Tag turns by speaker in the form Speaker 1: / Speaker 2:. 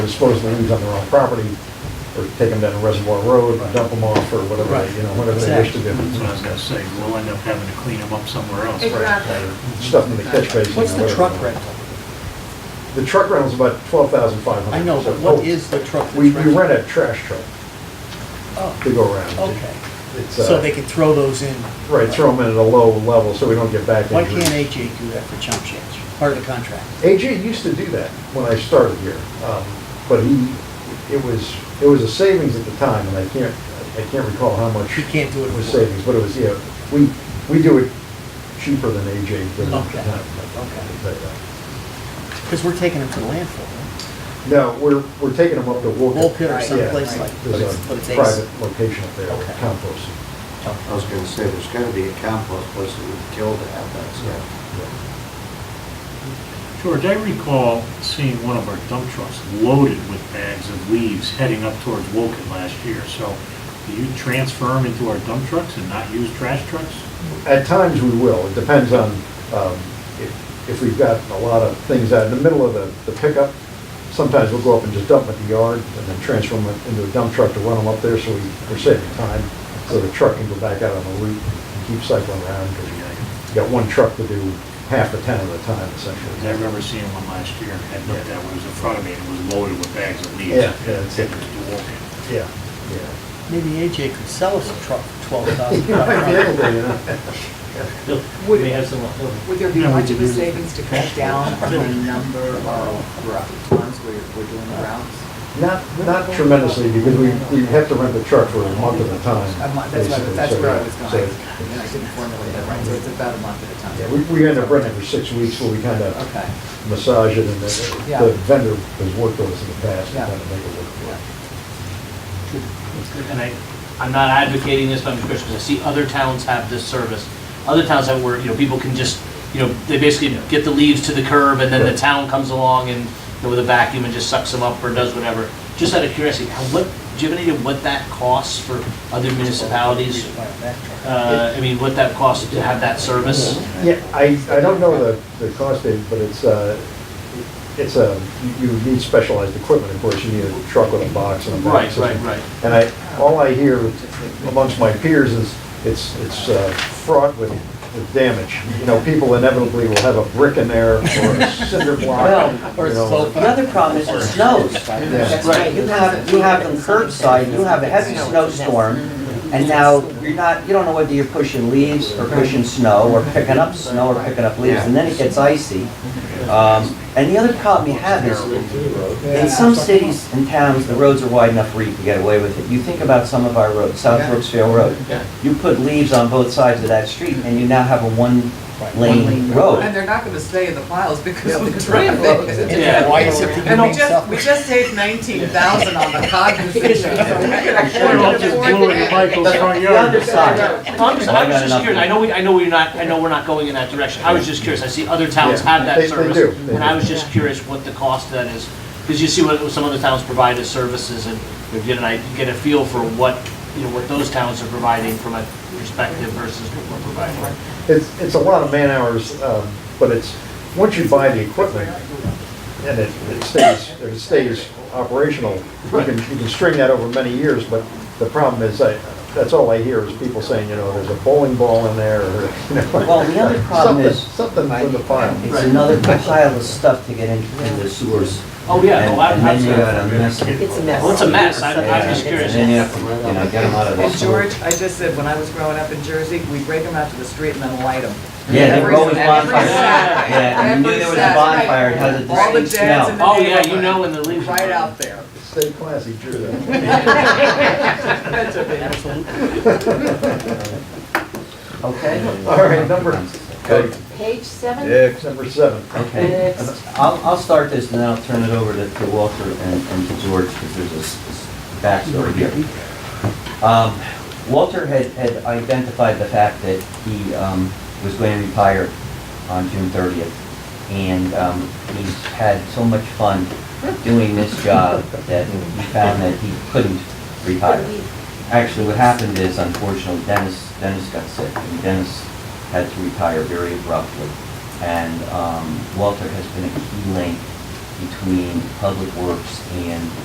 Speaker 1: dispose of the weeds on their own property, or take them down to Reservoir Road, and dump them off, or whatever,
Speaker 2: Right.
Speaker 1: you know, whatever they wish to do.
Speaker 3: That's what I was gonna say, we'll end up having to clean them up somewhere else.
Speaker 4: Exactly.
Speaker 1: Stuff in the catch basin.
Speaker 2: What's
Speaker 1: or
Speaker 2: the
Speaker 1: whatever.
Speaker 2: truck rental?
Speaker 1: The truck rental's about twelve thousand five hundred. oh,
Speaker 2: I know, but what is the truck that's
Speaker 1: We, we
Speaker 2: rented?
Speaker 1: rent a trash truck to
Speaker 2: Oh,
Speaker 1: go around.
Speaker 2: okay.
Speaker 1: It's, uh,
Speaker 2: So they can throw those in.
Speaker 1: Right, throw them in at a low level, so we don't get back
Speaker 2: Why
Speaker 1: injuries.
Speaker 2: can't AJ do that for chump change, part of the contract?
Speaker 1: AJ used to do that when I started here, um, but he, it was, it was a savings at the time, and I can't, I can't recall how much.
Speaker 2: He can't do it
Speaker 1: It was
Speaker 2: for-
Speaker 1: savings, but it was, yeah, we, we do it cheaper than AJ did. at the
Speaker 2: Okay,
Speaker 1: time.
Speaker 2: okay.
Speaker 1: But, uh,
Speaker 2: Because we're taking them to the landfill,
Speaker 1: No, we're, we're taking them up to Woken.
Speaker 2: Woken or
Speaker 1: Yeah,
Speaker 2: someplace like- but
Speaker 1: There's
Speaker 2: it's- but it's
Speaker 1: a
Speaker 2: ace.
Speaker 1: private location up there,
Speaker 2: Okay.
Speaker 1: compost.
Speaker 5: I was gonna say, there's gotta be a compost place that would kill to have that stuff.
Speaker 3: George, I recall seeing one of our dump trucks loaded with bags of leaves heading up towards Woken last year. So do you transfer them into our dump trucks and not use trash trucks?
Speaker 1: At times we will, it depends on um, if if we've got a lot of things out in the middle of the the pickup. Sometimes we'll go up and just dump them at the yard and then transfer them into a dump truck to run them up there so we- we're saving time. So the truck can go back out on the route and keep cycling around because you got one truck to do half the town at a time
Speaker 3: Because I
Speaker 1: essentially.
Speaker 3: remember seeing one last year, and had looked at one, it was in front of me, and it was loaded with bags of leaves.
Speaker 1: Yeah, yeah, it's-
Speaker 3: Heading to Woken.
Speaker 1: Yeah, yeah.
Speaker 2: maybe AJ could sell us a truck for twelve thousand.
Speaker 1: You might be able to, you know.
Speaker 6: Would, would there be
Speaker 3: Yeah, we
Speaker 6: much of
Speaker 3: could
Speaker 6: a
Speaker 3: use it.
Speaker 6: savings to cut down on the number of times we're, we're doing the rounds?
Speaker 1: Not, not tremendously, because we, we have to rent the truck for a month at a time.
Speaker 6: A month, that's what,
Speaker 1: basically,
Speaker 6: that's
Speaker 1: so,
Speaker 6: where I was
Speaker 1: yeah,
Speaker 6: going,
Speaker 1: so-
Speaker 6: and I didn't formulate that right, so it's about a month at a time.
Speaker 1: Yeah, we, we end up renting for six weeks, where we kind of
Speaker 6: Okay,
Speaker 1: massage it, and then
Speaker 6: Yeah.
Speaker 1: the vendor has worked with us in the past, and
Speaker 6: Yeah.
Speaker 1: kind of make it work for us.
Speaker 7: and I, I'm not advocating this, but I'm just because I see other towns have this service. Other towns have where, you know, people can just, you know, they basically get the leaves to the curb and then the
Speaker 1: Right.
Speaker 7: town comes along and, you know, with a vacuum and just sucks them up or does whatever. Just out of curiosity, how, what, do you have any idea what that costs for other municipalities? Uh, I mean, what that costs to have that service?
Speaker 1: Yeah, I, I don't know the, the cost, Dave, but it's, uh, it's a, you you need specialized equipment, of course, you need a truck with a box and a
Speaker 7: Right,
Speaker 1: box.
Speaker 7: right, right.
Speaker 1: And I, all I hear amongst my peers is, it's, it's uh, fraught with, with damage. You know, people inevitably will have a brick in there or a cinder block.
Speaker 8: Well,
Speaker 2: or
Speaker 1: you know.
Speaker 2: slope.
Speaker 8: The other problem is it snows.
Speaker 1: Yeah.
Speaker 6: right.
Speaker 8: You have, you have them curbside, you have a heavy snowstorm, and now you're not, you don't know whether you're pushing leaves or pushing snow, or picking up snow or picking up leaves, and then it gets icy. Um, And the other problem you have is, in some cities and towns, the roads are wide enough where you can get away with it. You think about some of our roads, South Brooksville Road. You put leaves on both sides of that street, and you now have a one-lane
Speaker 6: and
Speaker 8: road.
Speaker 6: they're not gonna stay in the piles because of the traffic.
Speaker 7: Yeah.
Speaker 2: Why is it?
Speaker 6: And we just, we just saved nineteen thousand on the cotton decision, so we could
Speaker 3: Or I'll
Speaker 6: afford
Speaker 3: just
Speaker 6: it.
Speaker 3: blew it in Michael's front
Speaker 8: The
Speaker 3: yard.
Speaker 8: other side,
Speaker 7: Well, I'm just, I was just curious, I know, we, I know we're not, I know we're not going in that direction, I was just curious, I see other towns
Speaker 1: Yeah,
Speaker 7: have
Speaker 1: they- they
Speaker 7: that service.
Speaker 1: do, they
Speaker 7: And I
Speaker 1: do.
Speaker 7: was just curious what the cost of that is, because you see what some other towns provide as services, and you get an, I get a feel for what, you know, what those towns are providing from a perspective versus what we're providing.
Speaker 1: It's, it's a lot of man-hours, um, but it's, once you buy the equipment and it it stays, it stays operational, you can, you can string that over many years, but the problem is, I, that's all I hear is people saying, you know, there's a bowling ball in there, or, you know.
Speaker 8: Well, the other problem is-
Speaker 1: Something something from the file.
Speaker 8: It's another pile of stuff to get into in the sewers.
Speaker 7: Oh, yeah, no, I-
Speaker 8: And- And then you
Speaker 7: absolutely.
Speaker 8: got a mess. And
Speaker 4: It's a mess.
Speaker 7: Well, it's a mess, I- I'm just curious.
Speaker 8: then you have to, you know, get them out of the
Speaker 6: And
Speaker 8: sewer.
Speaker 6: George, I just said, when I was growing up in Jersey, we break them out to the street and then light them.
Speaker 8: Yeah, they were always
Speaker 6: Every-
Speaker 8: bonfires.
Speaker 6: every Saturday.
Speaker 8: Yeah, and you knew
Speaker 6: Every
Speaker 8: there was a
Speaker 6: Saturday.
Speaker 8: bonfire, it had a
Speaker 6: All the
Speaker 8: distinct
Speaker 6: dads in
Speaker 8: smell.
Speaker 6: the
Speaker 7: Oh, yeah, you
Speaker 6: neighborhood.
Speaker 7: know when the leaves.
Speaker 6: Right out there.
Speaker 1: Stay classy, Drew.
Speaker 6: That's a big-
Speaker 8: Okay?
Speaker 1: All right, number,
Speaker 5: Okay.
Speaker 4: Page seven?
Speaker 1: number seven.
Speaker 8: Okay.
Speaker 4: Next.
Speaker 8: I'll, I'll start this and then I'll turn it over to to Walter and and to George because there's a s- s- backstory here. Um, Walter had, had identified the fact that he um, was going to retire on June 30th. And um, he's had so much fun doing this job that he found that he couldn't retire. Actually, what happened is unfortunately Dennis, Dennis got sick and Dennis had to retire very abruptly. And um, Walter has been a key link between Public Works and